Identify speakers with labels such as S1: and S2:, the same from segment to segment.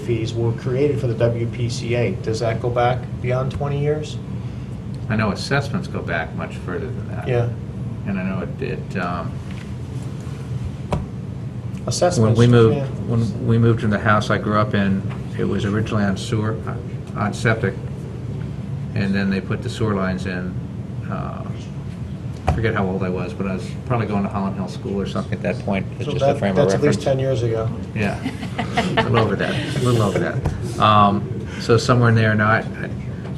S1: fees were created for the WPCA. Does that go back beyond 20 years?
S2: I know assessments go back much further than that.
S1: Yeah.
S2: And I know it, it, um, when
S1: Assessments.
S2: we moved,
S1: yeah.
S2: when we moved in the house I grew up in, it was originally on sewer, on septic, and then they put the sewer lines in. uh, I forget how old I was, but I was probably going to Holland Hill School or something at that point. It's
S1: So
S2: just a
S1: that-
S2: frame of
S1: That's at least
S2: reference.
S1: 10 years ago.
S2: Yeah. A little over that, a little over that. Um, So somewhere in there, now, I, I-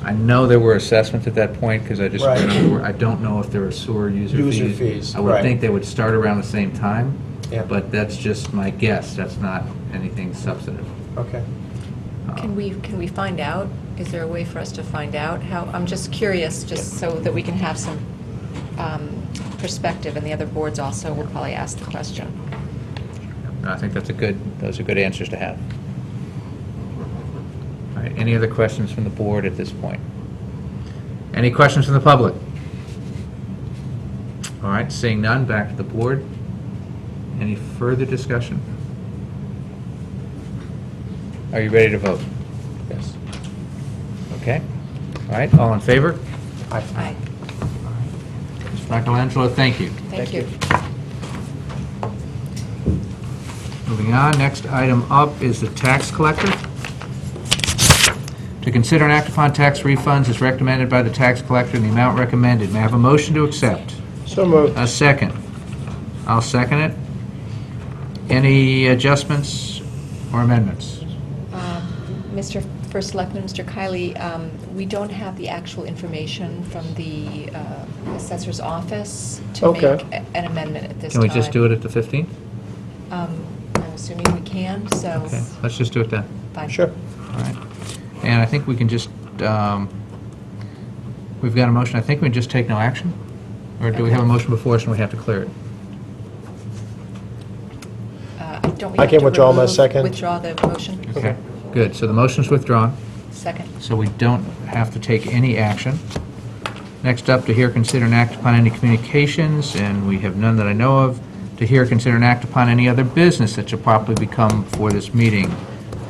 S2: I know there were assessments at that point, because I just,
S1: Right.
S2: remember- I don't know if there were sewer user fees.
S1: User fees,
S2: I would
S1: right.
S2: think they would start around the same time,
S1: Yeah.
S2: but that's just my guess, that's not anything substantive.
S1: Okay.
S2: Um,
S3: Can we, can we find out? Is there a way for us to find out how, I'm just curious, just so that we can have some um, perspective, and the other boards also will probably ask the question.
S2: I think that's a good, those are good answers to have. All right, any other questions from the board at this point? Any questions from the public? All right, seeing none, back to the board. Any further discussion? Are you ready to vote?
S1: Yes.
S2: Okay. All right, all in favor?
S1: Aye.
S3: Aye,
S2: Mr. Michelangelo, thank you.
S3: thank you.
S2: Moving on, next item up is the tax collector. To consider and act upon tax refunds is recommended by the tax collector in the amount recommended. May I have a motion to accept?
S1: So moved.
S2: A second. I'll second it. Any adjustments or amendments?
S3: Um, Mr. First Selectman, Mr. Kiley, um, we don't have the actual information from the uh, assessor's office to make
S1: Okay.
S3: a- an amendment at this
S2: Can
S3: time.
S2: we just do it at the 15th?
S3: Um, I'm assuming we can, so.
S2: Okay, let's just do it then.
S3: Fine.
S1: Sure.
S2: All right. And I think we can just, um, we've got a motion, I think we just take no action? Or do we have a motion before us and we have to clear it?
S3: Uh, Don't we
S1: I
S3: have
S1: can
S3: to
S1: withdraw my
S3: remove-
S1: second.
S3: Withdraw the motion?
S2: Okay, good. So the motion's withdrawn,
S3: Second.
S2: so we don't have to take any action. Next up, to hear, consider, and act upon any communications, and we have none that I know of. To hear, consider, and act upon any other business that should properly become for this meeting,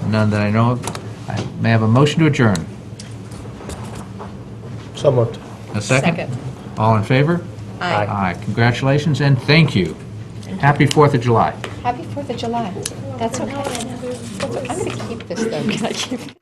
S2: none that I know of. I May I have a motion to adjourn?
S1: So moved.
S2: A second?
S3: Second.
S2: All in favor?
S3: Aye.
S2: Aye. Congratulations and thank you. Happy Fourth of July.
S3: Happy Fourth of July. That's okay. That's- I'm going to keep this, though. Can I keep it?